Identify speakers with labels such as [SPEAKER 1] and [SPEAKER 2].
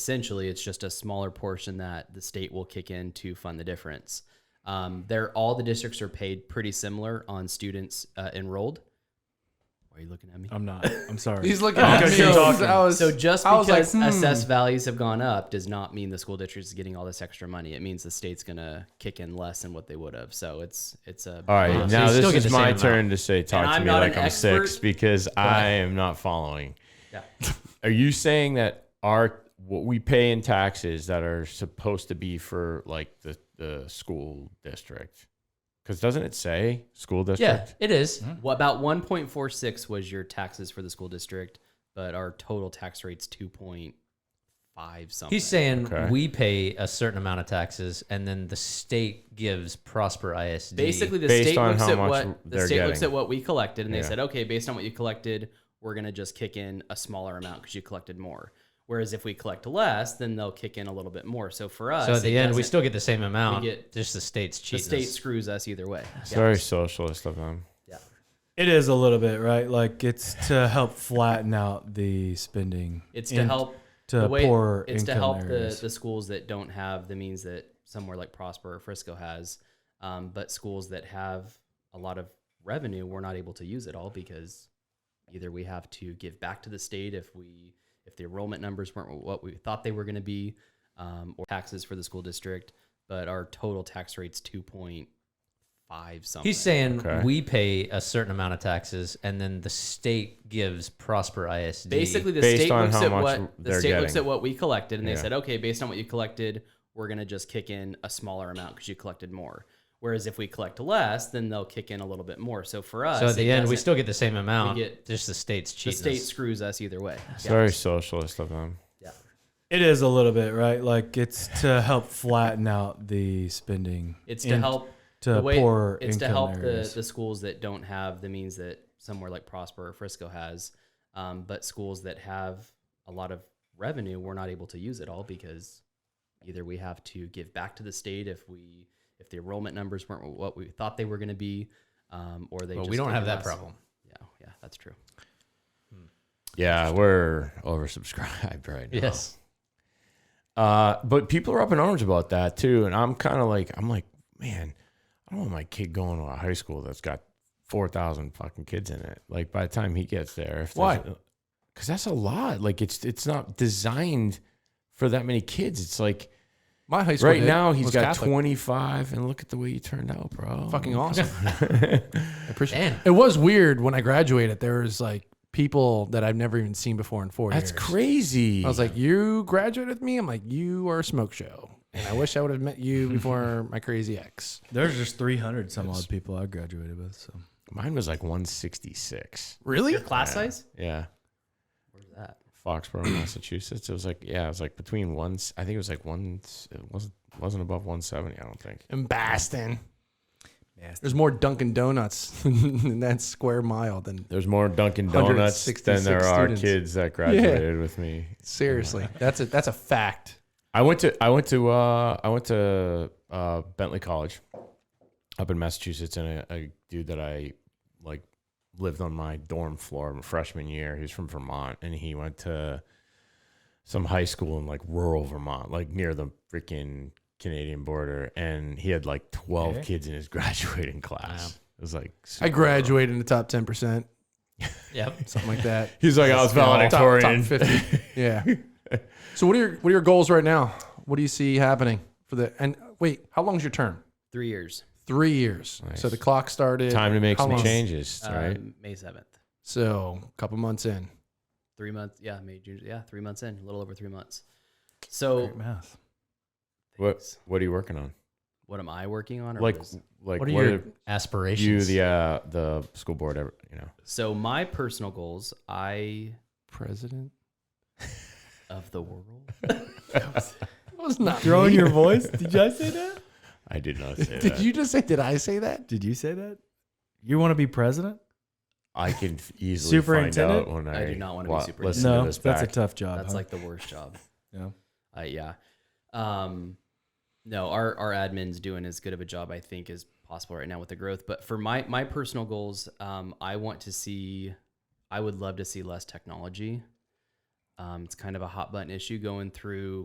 [SPEAKER 1] essentially it's just a smaller portion that the state will kick in to fund the difference. Um, they're all the districts are paid pretty similar on students uh, enrolled. Why are you looking at me?
[SPEAKER 2] I'm not. I'm sorry.
[SPEAKER 3] He's looking at me.
[SPEAKER 2] keep
[SPEAKER 3] I was-
[SPEAKER 2] talking.
[SPEAKER 3] I was-
[SPEAKER 1] So just
[SPEAKER 3] I was
[SPEAKER 1] because
[SPEAKER 3] like, hmm.
[SPEAKER 1] assessed values have gone up does not mean the school district is getting all this extra money. It means the state's gonna kick in less than what they would have. So it's it's a
[SPEAKER 4] All right,
[SPEAKER 2] Uh, so
[SPEAKER 4] now
[SPEAKER 2] you still get
[SPEAKER 4] this
[SPEAKER 2] the
[SPEAKER 4] is
[SPEAKER 2] same
[SPEAKER 4] my
[SPEAKER 2] amount.
[SPEAKER 4] turn to say talk
[SPEAKER 1] And
[SPEAKER 4] to
[SPEAKER 1] I'm
[SPEAKER 4] me
[SPEAKER 1] not
[SPEAKER 4] like
[SPEAKER 1] an
[SPEAKER 4] I'm six
[SPEAKER 1] expert.
[SPEAKER 4] because I am not following.
[SPEAKER 1] Yeah.
[SPEAKER 4] Are you saying that our what we pay in taxes that are supposed to be for like the, the school district? Because doesn't it say school
[SPEAKER 1] yeah,
[SPEAKER 4] district?
[SPEAKER 1] it is.
[SPEAKER 5] Mm-hmm.
[SPEAKER 1] What about one point four six was your taxes for the school district, but our total tax rate's two point five something.
[SPEAKER 5] He's saying
[SPEAKER 4] Okay.
[SPEAKER 5] we pay a certain amount of taxes, and then the state gives Prosper ISD.
[SPEAKER 1] basically the
[SPEAKER 4] Based
[SPEAKER 1] state
[SPEAKER 4] on
[SPEAKER 1] looks
[SPEAKER 4] how
[SPEAKER 1] at
[SPEAKER 4] much
[SPEAKER 1] what the
[SPEAKER 4] they're
[SPEAKER 1] state looks at
[SPEAKER 4] getting.
[SPEAKER 1] what we collected and they
[SPEAKER 4] Yeah.
[SPEAKER 1] said okay based on what you collected we're going to just kick in a smaller amount because you collected more whereas if we collect less then they'll kick in a little bit more so for us
[SPEAKER 5] so at
[SPEAKER 1] it
[SPEAKER 5] the end, we
[SPEAKER 1] doesn't-
[SPEAKER 5] still get the same amount.
[SPEAKER 1] get-
[SPEAKER 5] just the state's
[SPEAKER 1] the
[SPEAKER 5] cheating.
[SPEAKER 1] state
[SPEAKER 5] us.
[SPEAKER 1] screws us either way
[SPEAKER 4] It's very socialist of them.
[SPEAKER 2] It is a little bit, right? Like it's to help flatten out the spending.
[SPEAKER 1] it's to
[SPEAKER 2] in-
[SPEAKER 1] help
[SPEAKER 2] to
[SPEAKER 1] the way
[SPEAKER 2] poorer
[SPEAKER 1] it's to
[SPEAKER 2] income
[SPEAKER 1] help the,
[SPEAKER 2] areas.
[SPEAKER 1] the schools that don't have the means that somewhere like prosper or frisco has um, but schools that have a lot of revenue we're not able to use it all because either we have to give back to the state if we if the enrollment numbers weren't what we thought they were going to be um, or taxes for the school district but our total tax rate's 2.5 something
[SPEAKER 5] He's saying
[SPEAKER 4] Okay.
[SPEAKER 5] we pay a certain amount of taxes, and then the state gives Prosper ISD.
[SPEAKER 1] Basically, the
[SPEAKER 4] Based
[SPEAKER 1] state
[SPEAKER 4] on
[SPEAKER 1] looks
[SPEAKER 4] how
[SPEAKER 1] at
[SPEAKER 4] much
[SPEAKER 1] what the
[SPEAKER 4] they're
[SPEAKER 1] state looks
[SPEAKER 4] getting.
[SPEAKER 1] at what we collected, and they
[SPEAKER 4] Yeah.
[SPEAKER 1] said, okay, based on what you collected, we're gonna just kick in a smaller amount because you collected more. Whereas if we collect less, then they'll kick in a little bit more. So for us,
[SPEAKER 5] so at
[SPEAKER 1] it
[SPEAKER 5] the end, we
[SPEAKER 1] doesn't-
[SPEAKER 5] still get the same amount.
[SPEAKER 1] get-
[SPEAKER 5] just the state's
[SPEAKER 1] the
[SPEAKER 5] cheating.
[SPEAKER 1] state
[SPEAKER 5] us.
[SPEAKER 1] screws us either way.
[SPEAKER 4] It's
[SPEAKER 1] Yeah.
[SPEAKER 4] very socialist of them.
[SPEAKER 1] Yeah.
[SPEAKER 2] It is a little bit, right? Like it's to help flatten out the spending.
[SPEAKER 1] It's to
[SPEAKER 2] in-
[SPEAKER 1] help
[SPEAKER 2] to
[SPEAKER 1] the way,
[SPEAKER 2] poorer
[SPEAKER 1] It's to
[SPEAKER 2] income
[SPEAKER 1] help the,
[SPEAKER 2] areas.
[SPEAKER 1] the schools that don't have the means that somewhere like Prosper or Frisco has, um, but schools that have a lot of revenue, we're not able to use it all because either we have to give back to the state if we if the enrollment numbers weren't what we thought they were going to be, um, or they.
[SPEAKER 5] Well,
[SPEAKER 1] just
[SPEAKER 5] we don't
[SPEAKER 1] kick
[SPEAKER 5] have
[SPEAKER 1] in
[SPEAKER 5] that
[SPEAKER 1] less.
[SPEAKER 5] problem.
[SPEAKER 1] Yeah, yeah, that's true.
[SPEAKER 4] Yeah, we're oversubscribed right now.
[SPEAKER 5] Yes.
[SPEAKER 4] Uh, but people are up in arms about that too, and I'm kind of like, I'm like, man, I don't want my kid going to a high school that's got four thousand fucking kids in it. Like by the time he gets there, if
[SPEAKER 3] Why?
[SPEAKER 4] Because that's a lot. Like it's it's not designed for that many kids. It's like
[SPEAKER 3] My high school
[SPEAKER 4] right
[SPEAKER 3] did-
[SPEAKER 4] now he's
[SPEAKER 3] was
[SPEAKER 4] got
[SPEAKER 3] Catholic.
[SPEAKER 4] 25, and look at the way you turned out, bro.
[SPEAKER 3] Fucking awesome. I appreciate
[SPEAKER 5] Damn.
[SPEAKER 3] it. It was weird when I graduated. There was like people that I've never even seen before in four
[SPEAKER 4] That's
[SPEAKER 3] years.
[SPEAKER 4] crazy.
[SPEAKER 3] I was like, you graduated with me? I'm like, you are a smoke show. And I wish I would have met you before my crazy ex.
[SPEAKER 2] There's just 300 some odd people I graduated with. So
[SPEAKER 4] mine was like 166.
[SPEAKER 3] Really?
[SPEAKER 1] Your class size?
[SPEAKER 4] Yeah.
[SPEAKER 1] Where's that?
[SPEAKER 4] Foxborough, Massachusetts. It was like yeah, it was like between one. I think it was like one. It wasn't wasn't above one seventy. I don't think.
[SPEAKER 3] In Baston. There's more Dunkin' Donuts in that square mile than
[SPEAKER 4] There's more Dunkin' Donuts than there
[SPEAKER 3] 166
[SPEAKER 4] are
[SPEAKER 3] students.
[SPEAKER 4] kids that graduated with me.
[SPEAKER 3] seriously. That's a that's a fact.
[SPEAKER 4] I went to I went to uh, I went to uh, Bentley College up in Massachusetts, and a, a dude that I like lived on my dorm floor my freshman year. He was from Vermont, and he went to some high school in like rural Vermont, like near the freaking Canadian border, and he had like twelve
[SPEAKER 2] Okay.
[SPEAKER 4] kids in his graduating class. It was like
[SPEAKER 3] I graduated in the top ten percent,
[SPEAKER 5] Yep.
[SPEAKER 3] something like that.
[SPEAKER 4] He's like I was
[SPEAKER 3] top, top
[SPEAKER 4] valedictorian.
[SPEAKER 3] fifty. Yeah. so what are your what are your goals right now? What do you see happening for the and wait, how long's your term?
[SPEAKER 1] Three years.
[SPEAKER 3] Three years.
[SPEAKER 4] Nice.
[SPEAKER 3] So the clock started.
[SPEAKER 4] Time to make
[SPEAKER 3] How
[SPEAKER 4] some
[SPEAKER 3] long?
[SPEAKER 4] changes,
[SPEAKER 1] Um,
[SPEAKER 4] right?
[SPEAKER 1] May seventh.
[SPEAKER 3] So a couple months in.
[SPEAKER 1] Three months. Yeah, May June. Yeah, three months in. A little over three months. So
[SPEAKER 2] great math.
[SPEAKER 4] What What are you working on?
[SPEAKER 1] what am I working on? Or
[SPEAKER 4] Like,
[SPEAKER 1] what is-
[SPEAKER 4] like
[SPEAKER 5] what are your aspirations?
[SPEAKER 4] you the uh, the school board ever you know
[SPEAKER 1] so my personal goals, I
[SPEAKER 3] President.
[SPEAKER 1] of the world.
[SPEAKER 3] That was not
[SPEAKER 2] Throwing
[SPEAKER 3] me.
[SPEAKER 2] your voice? Did I say that?
[SPEAKER 4] i did not say
[SPEAKER 3] Did you just say did I say that?
[SPEAKER 2] Did you say that? You want to be president?
[SPEAKER 4] i can f- easily find
[SPEAKER 2] Superintendent?
[SPEAKER 4] out when i,
[SPEAKER 1] I do not wanna be
[SPEAKER 4] wa-
[SPEAKER 1] superintendent.
[SPEAKER 4] listen
[SPEAKER 2] No,
[SPEAKER 4] to this
[SPEAKER 2] that's
[SPEAKER 4] back.
[SPEAKER 2] a tough job.
[SPEAKER 1] That's
[SPEAKER 2] huh?
[SPEAKER 1] like the worst job.
[SPEAKER 2] Yeah.
[SPEAKER 1] Uh, yeah. Um, no, our our admin's doing as good of a job I think as possible right now with the growth. But for my my personal goals, um, I want to see, I would love to see less technology. Um, it's kind of a hot button issue going through